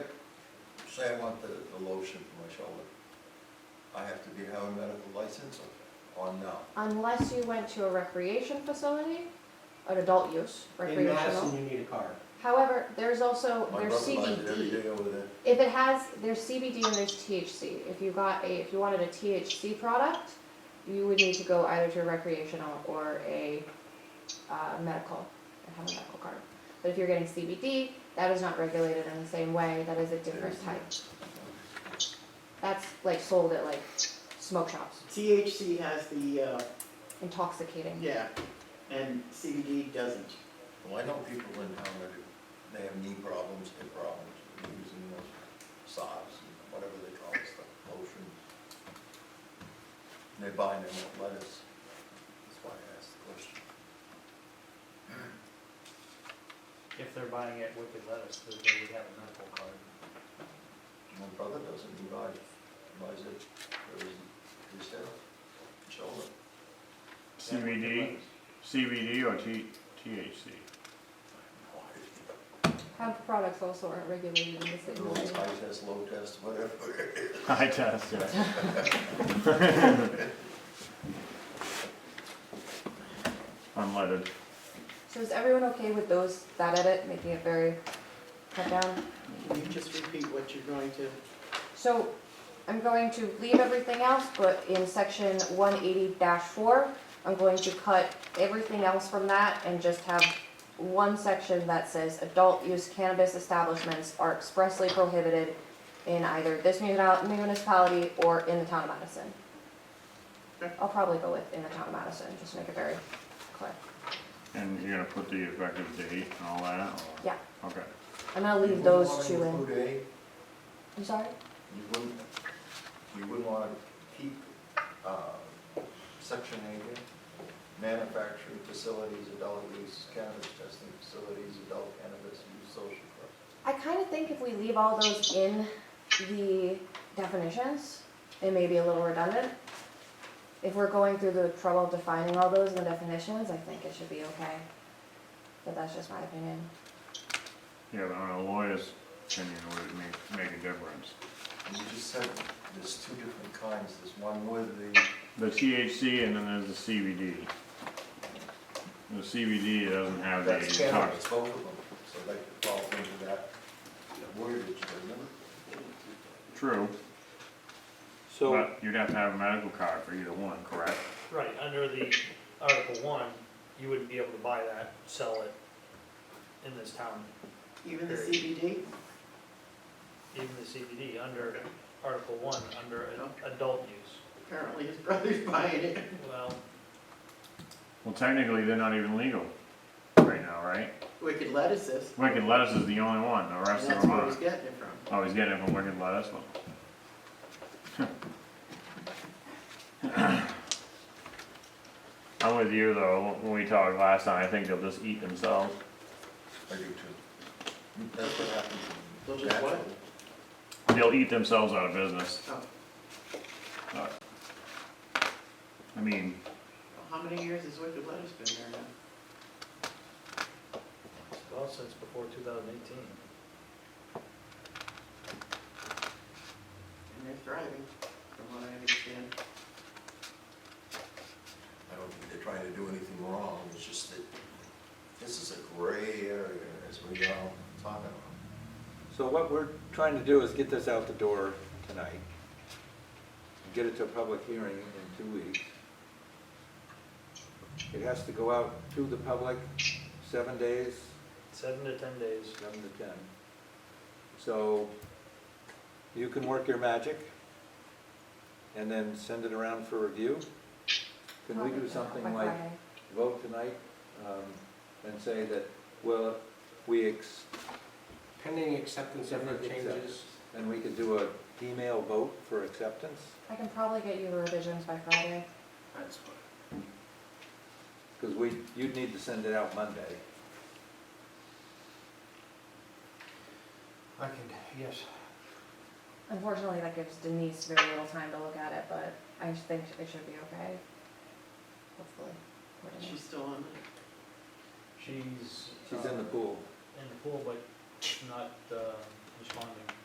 say I want the, the lotion for my shoulder, I have to be have a medical license or, or no? Unless you went to a recreation facility, an adult use, In Madison, recreational. you need a card. However, there's also, My there's brother buys it every CBD. day over there. If it has, there's CBD and there's THC. If you got a, if you wanted a THC product, you would need to go either to a recreational or a uh, medical and have a medical card. But if you're getting CBD, that is not regulated in the same way. That is a different type. That's like sold at like smoke shops, THC has the, uh, intoxicating. yeah, and CBD doesn't. Well, I know people in town that, have- they have knee problems, hip problems, using those sobs and whatever they call it, stuff, lotion. And They buy them at lettuce, that's why I asked the question. If they're buying it Wicked Lettuce, then they would have a medical card. My brother doesn't, he buys, he buys it for his, his health, shoulder. CBD, CBD or T, THC? Hemp products also aren't regulated in the same way. Everyone's high test, low test, whatever. I test, yeah. Unleaded. So is everyone okay with those, that edit, making it very cut down? Can you just repeat what you're going to? So I'm going to leave everything else, but in section one eighty four, I'm going to cut everything else from that and just have one section that says adult use cannabis establishments are expressly prohibited in either this muni- municipality or in the town of Madison. Okay. I'll probably go with in the town of Madison, just to make it very clear. And you're gonna put the effective date and all that, or? Yeah. Okay. I'm gonna You leave wouldn't those wanna two in. include A? I'm sorry? You wouldn't, you wouldn't want to keep uh, section eight in? Manufacturing facilities, adult use cannabis testing facilities, adult cannabis use social club. I kind of think if we leave all those in the definitions, it may be a little redundant. If we're going through the trouble of defining all those in the definitions, I think it should be okay. But that's just my opinion. Yeah, but on a lawyer's opinion, would it make, make a difference? And You just said there's two different kinds, there's one with the, The THC and then there's the CBD. The CBD doesn't have the that's cannabis, tox. both of them, so that falls into that wordage, doesn't it? True, So, but you'd have to have a medical card for either one, correct? Right, under the Article One, you wouldn't be able to buy that, sell it in this town, Even the CBD? even the CBD, under Article One, under a- adult use. Apparently his brother's buying it. Well, Well, technically, they're not even legal right now, right? Wicked lettuces. Wicked Lettuce is the only one, the And rest of that's them where he's aren't. getting it from. Oh, he's getting it from Wicked Lettuce, well. I'm with you, though, when we talked last time, I think they'll just eat themselves. I do too. That's what happens. They'll just what? naturally. They'll eat themselves out of business. Oh, Uh, I mean, How many years has wicked lettuce been there now? well, since before two thousand eighteen. And they're thriving, from what I understand. I don't think they're trying to do anything wrong, it's just that this is a gray area, as we are all talking about. so what we're trying to do is get this out the door tonight, get it to a public hearing in two weeks. It has to go out to the public seven days, Seven to ten days. seven to ten. So you can work your magic and then send it around for review. Can we do something like vote tonight um, and say that, well, we ex, Pending acceptance of the changes. and we could do a email vote for acceptance? I can probably get you the revisions by Friday. That's fine. Because we, you'd need to send it out Monday. I can, yes. Unfortunately, that gives Denise very little time to look at it, but I think it should be okay. Hopefully. according to- She's still on She's. She's in the uh, pool. In the pool, but not, uh, responding.